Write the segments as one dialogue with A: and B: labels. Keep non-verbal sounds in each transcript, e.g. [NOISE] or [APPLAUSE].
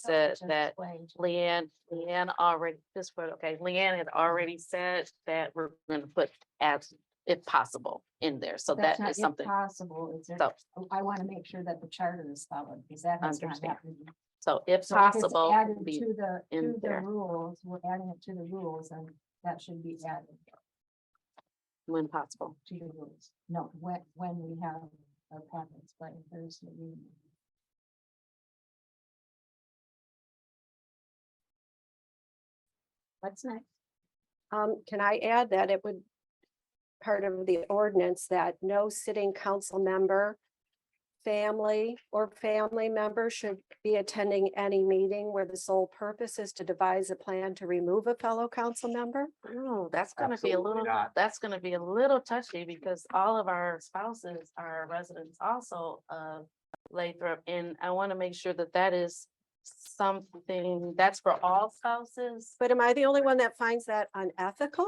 A: said that Leanne, Leanne already, this word, okay, Leanne had already
B: Mm-hmm.
A: said that we're gonna put as, if possible, in there, so that is something.
B: Possible, is there,
A: So,
B: I want to make sure that the charter is followed, because that has not
A: Understand.
B: happened.
A: so if
B: So if it's
A: possible,
B: added
A: would be-
B: To the,
A: in
B: to the
A: there.
B: rules, we're adding it to the rules, and that should be added
A: when possible,
B: to the rules. No, when, when we have our packets, but if there's. a meeting. What's next?
C: Um, can I add that it would part of the ordinance that no sitting council member, family or family member should be attending any meeting where the sole purpose is to devise a plan to remove a fellow council member?
A: oh, that's gonna be a
D: Absolutely
A: little,
D: not.
A: that's gonna be a little touchy, because all of our spouses are residents also of Lathrop, and I wanna make sure that that is something, that's for all spouses.
C: But am I the only one that finds that unethical?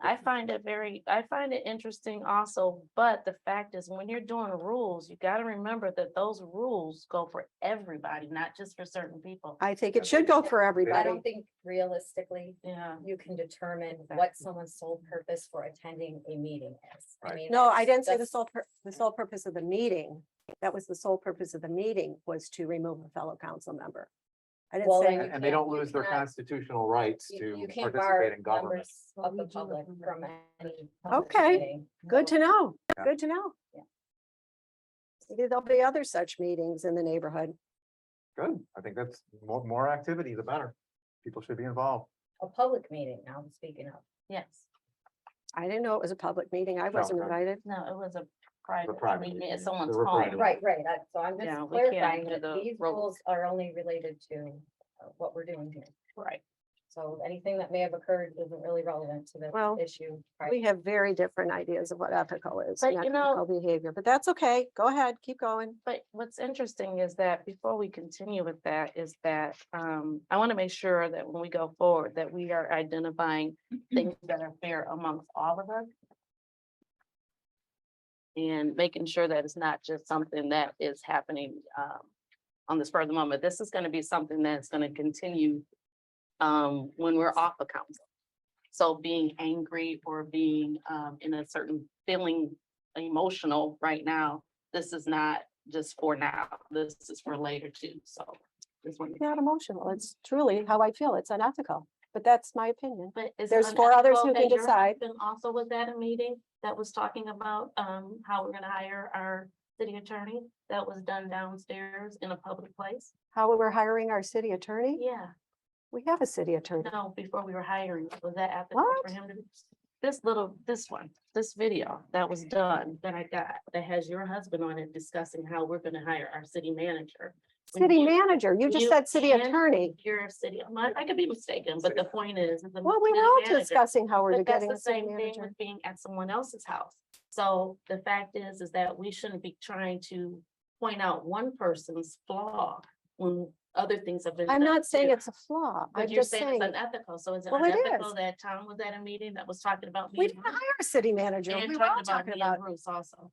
A: I find it very, I find it interesting also, but the fact is, when you're doing rules, you gotta remember that those rules go for everybody, not just for certain people.
C: I think it should go for
E: I
C: everybody.
E: don't think realistically
A: Yeah,
E: you can determine what
A: Exactly.
E: someone's sole purpose for attending a meeting is. I
D: Right.
E: mean,
C: No, I didn't say the
E: that's-
C: sole, pur- the sole purpose of the meeting. That was the sole purpose of the meeting was to remove a fellow council member. I didn't
E: Well,
C: say.
E: then
D: And and they
E: can't-
D: don't
E: you
D: lose their
E: cannot-
D: constitutional rights
E: You
D: to
E: you can't bar
D: participate in government.
E: members
B: Well,
E: of
B: we
E: the
B: do
E: public
B: approve
E: from
B: of
E: any. public
C: Okay.
E: meeting.
C: Good to know,
D: Yeah.
C: good to know.
E: Yeah.
C: Maybe there'll be other such meetings in the neighborhood.
D: Good. I think that's more, more activity, the better. People should be involved.
E: A public meeting, now I'm speaking of.
A: yes,
C: I didn't know it was a public meeting. I wasn't
D: no.
C: invited.
A: no, it was a
D: private
A: private, meeting
D: meeting.
A: at someone's
D: They were
A: home.
D: private.
E: Right, right, that- so I'm
A: Yeah,
E: just
A: we can't
E: clarifying
A: do
E: that
A: the
E: these
A: roll.
E: rules are only related to uh, what we're doing here.
A: Right.
E: So anything that may have occurred isn't really relevant to
C: Well,
E: the issue. prior
C: We have very different ideas of what ethical is.
A: But
C: and
A: you know-
C: ethical Behavior, but that's okay. Go ahead, keep going.
A: But what's interesting is that before we continue with that, is that um, I want to make sure that when we go forward, that we are identifying things that are fair amongst all of us. And making sure that it's not just something that is happening um, on the spur of the moment. This is going to be something that's going to continue um, when we're off the council. So being angry or being um, in a certain feeling emotional right now this is not just for now, this is for later too, so. this one-
C: Not emotional. It's truly how I feel. It's unethical, but that's my opinion.
A: But is it
C: There's four others
A: unethical
C: who can
A: that your
C: decide.
A: husband Also was at a meeting that was talking about um how we're gonna hire our city attorney, that was done downstairs in a public place.
C: How we're hiring our city attorney?
A: Yeah,
C: We have a city attorney.
A: no, before we were hiring, was that after
C: What?
A: for him to? This little, this one, this video that was done that I got, that has your husband on it discussing how we're gonna hire our city manager. When
C: City
A: you-
C: manager, you just
A: you
C: said city
A: can-
C: attorney.
A: your city, I'm not- I could be mistaken, but the point is. is the
C: Well, we
A: city
C: were all
A: manager-
C: discussing how we're
A: But that's
C: getting
A: the
C: a city
A: same thing
C: manager.
A: with being at someone else's house. So the fact is, is that we shouldn't be trying to point out one person's flaw when other things have been.
C: I'm
A: done
C: not saying
A: too.
C: it's a flaw. I'm
A: But you're
C: just
A: saying it's
C: saying.
A: unethical, so is it
C: Well, it
A: unethical
C: is.
A: that Tom was at a meeting that was talking about me
C: We
A: and
C: didn't
A: Bruce?
C: hire a city manager.
A: And
C: We were all
A: talking about
C: talking
A: me
C: about,
A: and Bruce also?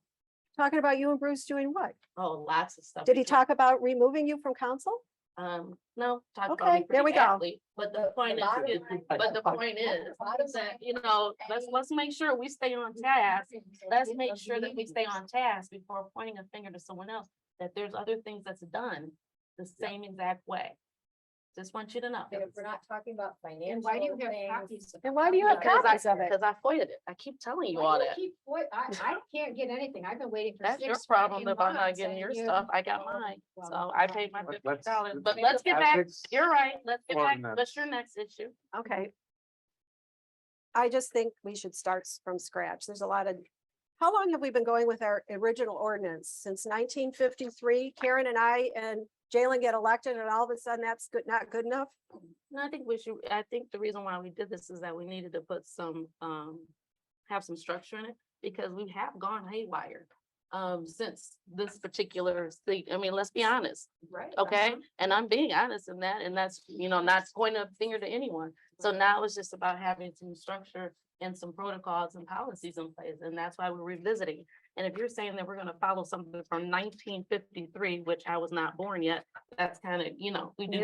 C: talking about you and Bruce doing what?
A: Oh, lots of stuff.
C: Did
A: we
C: he talk about removing you from council?
A: Um, no. talk about
C: Okay,
A: me
C: there we go.
A: briefly, But the point is,
E: bottom
A: is-
E: line-
A: but the
C: Okay.
A: point
E: Bottom
A: is, that,
E: line-
A: you know, let's, let's make sure we stay
C: [LAUGHS]
A: on task. Let's make sure that we stay on task before pointing a finger to someone else, that there's other things that's done the same exact way. Just want you to know.
E: If we're not talking about
B: And
E: financial
B: why do you have
E: things.
B: copies? of-
C: And why do you have
A: Because I,
C: copies of it?
A: because I foiled it. I keep telling you
B: Why
A: all
B: do
A: that.
B: keep- what- I, I can't get anything. I've been waiting for six.
A: That's your problem
B: fucking
A: if I'm not
B: months,
A: getting
B: and
A: your
B: you-
A: stuff. I got
B: Well,
A: mine.
B: well,
A: So I
B: well.
A: paid my
D: Let-
A: fifty
D: let's-
A: dollars, but
B: let's-
A: let's get back.
D: Ethics-
A: You're right. Let's get back.
D: Ordinance.
A: What's your next issue?
C: Okay. I just think we should start s- from scratch. There's a lot of, how long have we been going with our original ordinance? Since nineteen fifty-three, Karen and I and Jalen get elected and all of a sudden that's good, not good enough?
A: No, I think we should, I think the reason why we did this is that we needed to put some, um, have some structure in it, because we have gone haywire. Um, since this particular thing, I mean, let's be honest,
B: Right.
A: okay? And I'm being honest in that, and that's, you know, not pointing a finger to anyone. So now it's just about having some structure and some protocols and policies in place, and that's why we're revisiting. And if you're saying that we're gonna follow something from nineteen fifty-three, which I was not born yet, that's kind of, you know, we do